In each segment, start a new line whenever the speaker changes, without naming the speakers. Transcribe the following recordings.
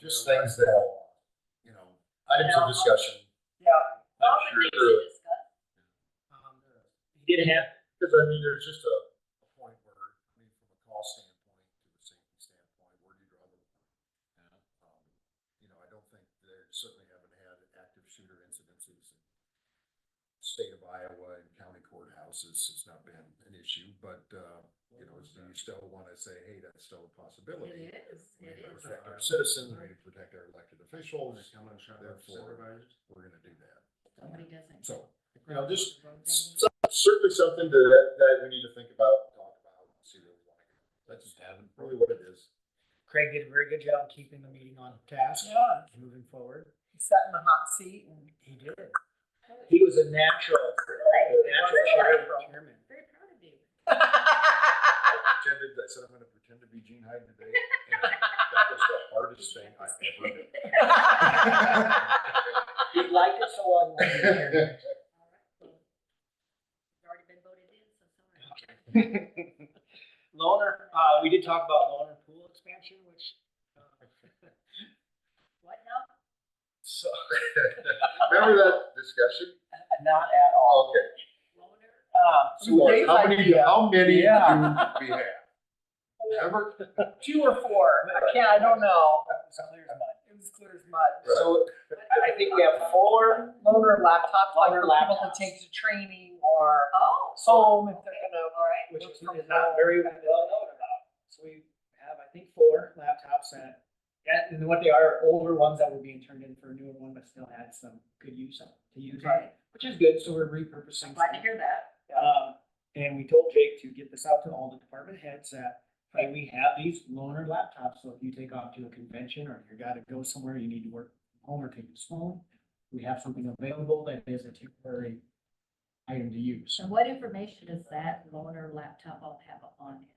just things that, you know, items of discussion.
All
Not
the
sure
things
through
to discuss.
Um, He did have, because I mean, there's just a, a point where, I mean, from a cost standpoint, to a safety standpoint, where do you draw the line? Um, You know, I don't think, they certainly haven't had active shooter incidences in state of Iowa and county courthouses, it's not been an issue, but, uh, you know, do you still wanna say, hey, that's still a possibility?
It is,
We
it
need to
is.
protect our citizens, we need to protect our elected officials, therefore,
Therefore.
we're gonna do that,
Somebody doesn't.
so.
You know, just
So- Certainly something to, that, that we need to think about, talk about, and see where we want to go. That's really what it is.
Craig did a very good job of keeping the meeting on task.
Yeah.
and Moving forward.
He Sat in the hot seat and.
He did. He was a natural.
Really?
Natural
Really?
chair- chairman.
Very proud of you.
I pretended, I said I'm gonna pretend to be Gene Hyde today, and that was the hardest thing I've ever done.
He liked it so well. he wanted to be chairman.
It's Already been voted in, so sorry.
Loner, uh, we did talk about loner pool expansion, which, uh,
What now?
so,
Remember that discussion?
not at all.
Okay.
Loner? Um,
Uh, so
So
Dave's
how many,
idea-
how many
Yeah.
do we have? Ever?
two or four, I can't, I don't know. It was clear as mud. So I I think we have four loaner laptops, like for people who take to training or
Oh,
home if they're
okay,
gonna,
all right.
which is not very well known about. So we have, I think, four laptops that, yeah, and what they are, older ones that were being turned in for a newer one, but still had some good use on, to use on,
Okay.
it, which is good, so we're repurposing.
I'm glad
some.
to hear that.
Um, and we told Jake to get this out to all the department heads that, hey, we have these loaner laptops, so if you take off to a convention or you gotta go somewhere, you need to work from home or take this home. We have something available that is a temporary item to use.
So what information does that loner laptop all have on it?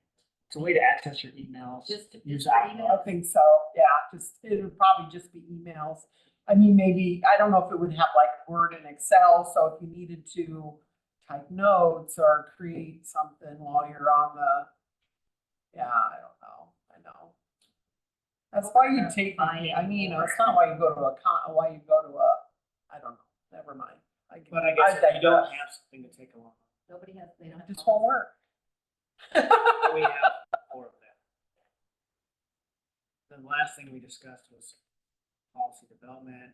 It's a way to access your emails.
Just.
Use
just
Outlook.
I think so, yeah, just, it would probably just be emails. I mean, maybe, I don't know if it would have like Word and Excel, so if you needed to type notes or create something while you're on the, yeah, I don't know, I know. That's why you take, I mean, it's not why you go to a con, why you go to a, I don't know, never mind.
But I guess if you don't have something to take along.
Nobody has, they don't. have
It's homework.
We have four of them. The last thing we discussed was policy development.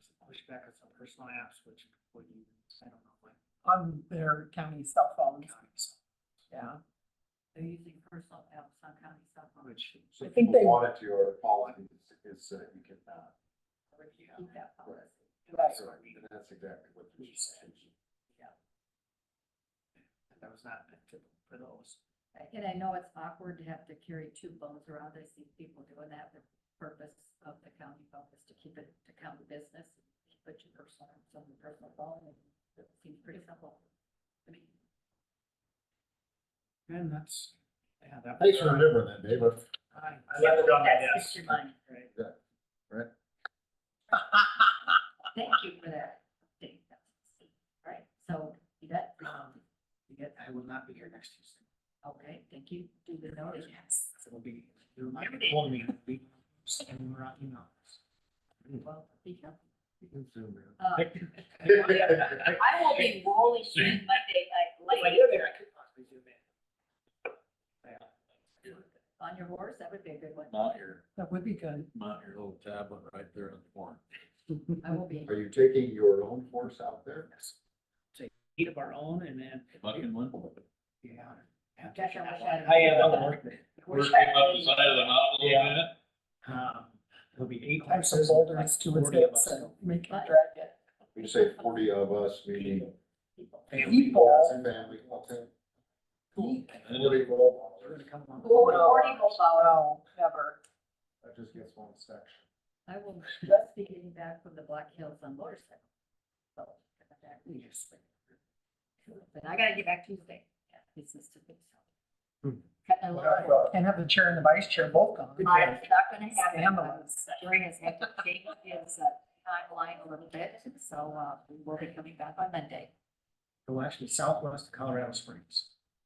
Some Pushback on some personal apps, which, what you, I don't know, like.
On their county cell phones,
county stuff,
yeah.
They're using personal apps on county cell phones.
Which.
So
I think
people
they-
Wanted to, or Paul, is that you can, uh,
Keep that policy.
Right.
so and that's exactly what. the-
We said. That was not meant to, for those.
And I know it's awkward to have to carry two phones around. I see people doing that. The purpose of the county phone is to keep it to county business. Put your personal, some personal phone. and It seems pretty simple. I mean,
And that's, yeah, that. was
Thanks for
our-
remembering that, Dave. I-
I I left it on my
that's
desk.
just your mind.
Oh, Right.
Thank you for that. update. All right, so you got,
Um, you get- I will not be here next Tuesday.
okay, thank you. Do the notice. Yes.
So It'll be, it'll not be calling me. it'll be sending around emails.
Well, be careful.
You can zoom in.
Uh,
I
I will be rolling in Monday night late
I could possibly zoom in.
on your horse. That would be a good one.
Mount your,
That would be good.
mount your little tablet right there on the horn.
I will be.
Are you taking your own force out there?
Eat of our own and then,
Bucking one.
yeah.
Gosh, I wish I had-
I am on work then.
First came up the side of the mountain a little bit.
Um, It'll be eight.
I have some
classes,
boulders to
like
lift
40 of
up,
us.
so make it
But-
drag it.
You say forty of us, meaning
People.
People.
Family, okay.
Cool.
Forty roll
We're gonna come on.
Well, recording will follow.
No, never.
That just gets one section.
I will just be getting back from the Black Hills on motorcycle. So, I got that.
Yes.
But I gotta get back Tuesday. Yeah, This is to fix.
Hmm.
Cutting a little.
Hmm.
Can't have the chair and the vice chair both gone.
I'm not gonna happen.
Stand
but
on.
Jerry has had to change his uh, timeline a little bit, so, uh, we'll be coming back on Monday.
Well, actually, southwest of Colorado Springs.